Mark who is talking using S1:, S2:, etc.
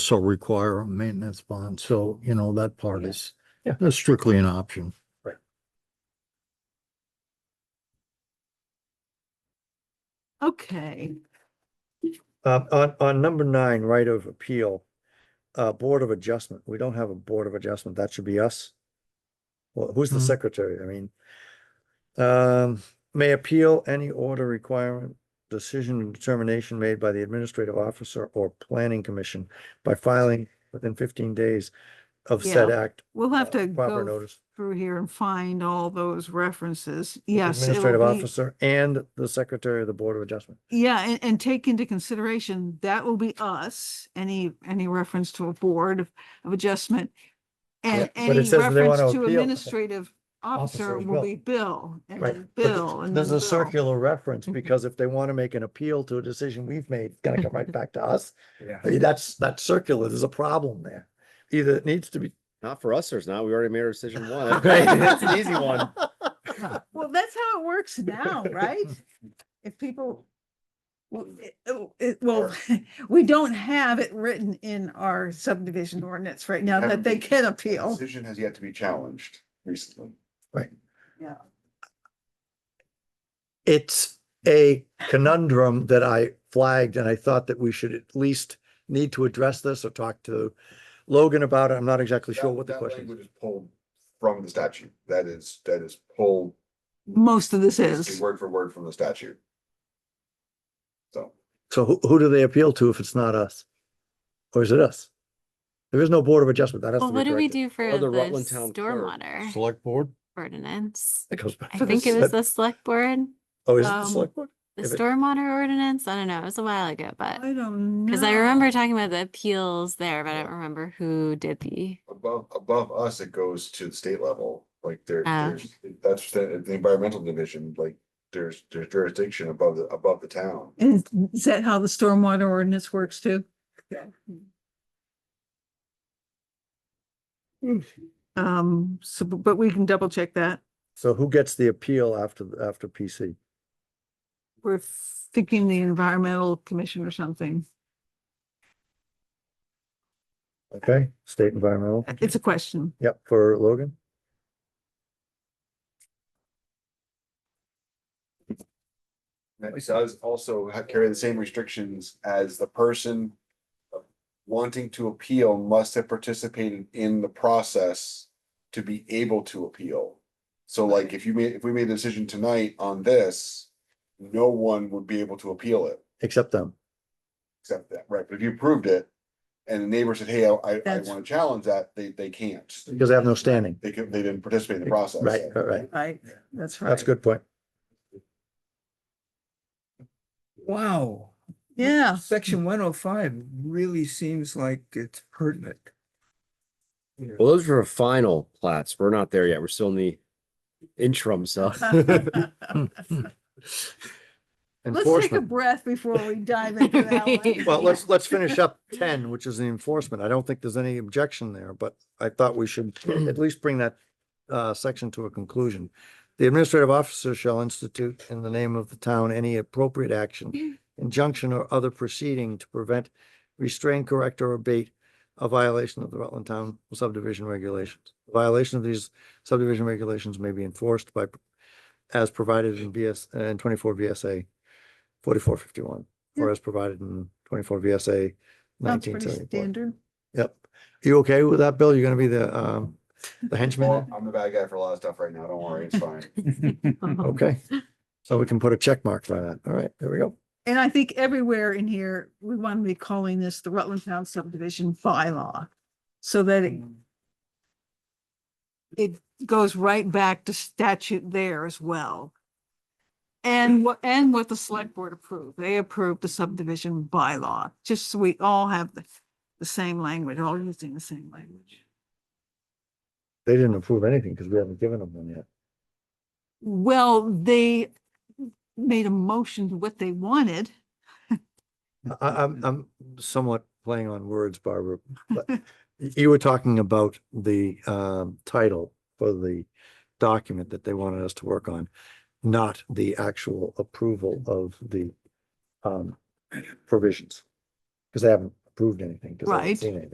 S1: also require a maintenance bond, so, you know, that part is,
S2: Yeah.
S1: that's strictly an option.
S3: Okay,
S2: Um, on, on number nine, right of appeal, uh, Board of Adjustment, we don't have a Board of Adjustment, that should be us. Well, who's the
S3: Mm-hmm.
S1: Mhm.
S2: secretary, I mean? Um, may appeal any order requirement, decision and determination made by the administrative officer or planning commission by filing within fifteen days of said act.
S3: we'll have
S2: uh,
S3: to
S2: Proper
S3: go
S2: notice.
S3: through here and find all those references.
S2: with the
S3: Yes. it'll
S2: Administrative
S3: be-
S2: officer and the secretary of the Board of Adjustment.
S3: Yeah, and, and take into consideration, that will be us, any, any reference to a board of, of adjustment. And
S2: Yeah, but it
S3: any
S2: says that they
S3: reference
S2: wanna
S3: to
S2: appeal.
S3: officer
S2: Officer
S3: officer
S2: is
S3: will
S2: Bill.
S3: be Bill, and
S2: Right.
S3: then
S2: but th-
S3: Bill, and then
S2: There's
S3: Bill.
S2: a circular reference
S4: Mm-hmm.
S3: Mhm.
S2: because if they want to make an appeal to a decision we've made, it's gonna come right back to us.
S5: Yeah.
S2: I mean, That's, that's circular. There's a problem there. Either it needs to be.
S5: Not for us, there's not. We already made our decision one. That's- That's an easy one.
S2: one.
S3: Well, that's how it works now, right? If people, well, it- oh, it- well, we don't have it written in our subdivision ordinance right now that they can appeal.
S6: Decision has yet to be challenged recently.
S3: Yeah.
S2: It's a conundrum that I flagged and I thought that we should at least need to address this or talk to Logan about it. I'm not exactly sure
S6: That-
S2: what the
S6: that
S2: question is.
S6: language is Pulled from the statute. That is, that is pulled
S3: Most of this
S6: basically
S3: is,
S6: word for word from the statute. So.
S2: So who, who do they appeal to if it's not us? Or is it us? There is no Board of Adjustment. That has to
S4: Well,
S2: be
S4: what do we
S2: corrected.
S4: do for
S5: Or
S4: the
S5: the Rutland Town Clerk.
S4: stormwater
S1: Select board?
S4: ordinance?
S2: It goes back
S4: I
S2: to the
S4: think it was
S2: sec-
S4: the select board,
S2: Oh, is it the
S3: um,
S2: select board?
S4: the
S2: If it-
S4: stormwater ordinance. I don't know. It was a while ago, but
S3: I don't know.
S4: because I remember talking about the appeals there, but I
S6: Yeah.
S4: don't remember who did the.
S6: Above, above us, it goes to the state level, like there,
S4: Ah.
S6: there's, that's the, the environmental division, like there's, there's jurisdiction above the, above the town.
S3: Is, is that how the stormwater ordinance works too? Hmm. Um, so, bu- but we can double check that.
S2: So who gets the appeal after, the- after PC?
S3: We're thinking the environmental commission or something.
S2: Okay, state environmental.
S3: It's a question.
S2: Yep, for Logan.
S6: That does also ha- carry the same restrictions as the person wanting to appeal must have participated in the process to be able to appeal. So like if you made, if we made a decision tonight on this, no one would be able to appeal it
S2: Except them.
S6: except that, right? But if you approved it and the neighbor said, hey, I, I- I
S3: That's-
S6: want to challenge that, they, they can't.
S2: Because they have no standing.
S6: They could, they didn't participate in the process.
S2: Right, right, right.
S3: Right, that's right.
S2: That's a good point.
S7: Wow.
S3: Yeah,
S7: Section one oh five really seems like it's pertinent. Yeah.
S5: Well, those were final plats. We're not there yet. We're still in the interim, so.
S3: let's take a
S2: Enforcement.
S3: breath before we dive into that one.
S2: Well, let's, let's finish up ten, which is the enforcement. I don't think there's any objection there, but I thought we should at least bring that uh, section to a conclusion. The administrative officer shall institute in the name of the town any appropriate action, injunction or other proceeding to prevent, restrain, correct or abate a violation of the Rutland Town subdivision regulations. Violation of these subdivision regulations may be enforced by as provided in BS, uh, in twenty-four VSA forty-four fifty-one, or as provided in twenty-four VSA
S3: Sounds
S2: nineteen
S3: pretty
S2: seventy-four.
S3: standard.
S2: Yep. You okay with that, Bill? You're gonna be the, um, the henchman? there?
S6: I'm the bad guy for a lot of stuff right now. Don't worry, it's fine.
S2: Okay. So we can put a check mark by that. All right, there we go.
S3: And I think everywhere in here, we want to be calling this the Rutland Town subdivision bylaw. So that it. It goes right back to statute there as well. And what, and what the select board approved, they approved the subdivision bylaw, just so we all have the, the same language, all using the same language.
S2: They didn't approve anything because we haven't given them one yet.
S3: Well, they made a motion to what they wanted.
S2: I, I'm, I'm somewhat playing on words, Barbara. but y- You were talking about the, um, title for the document that they wanted us to work on, not the actual approval of the, um, provisions. Because they haven't approved approved anything. 'cause I haven't
S3: Right.
S2: Seen anything.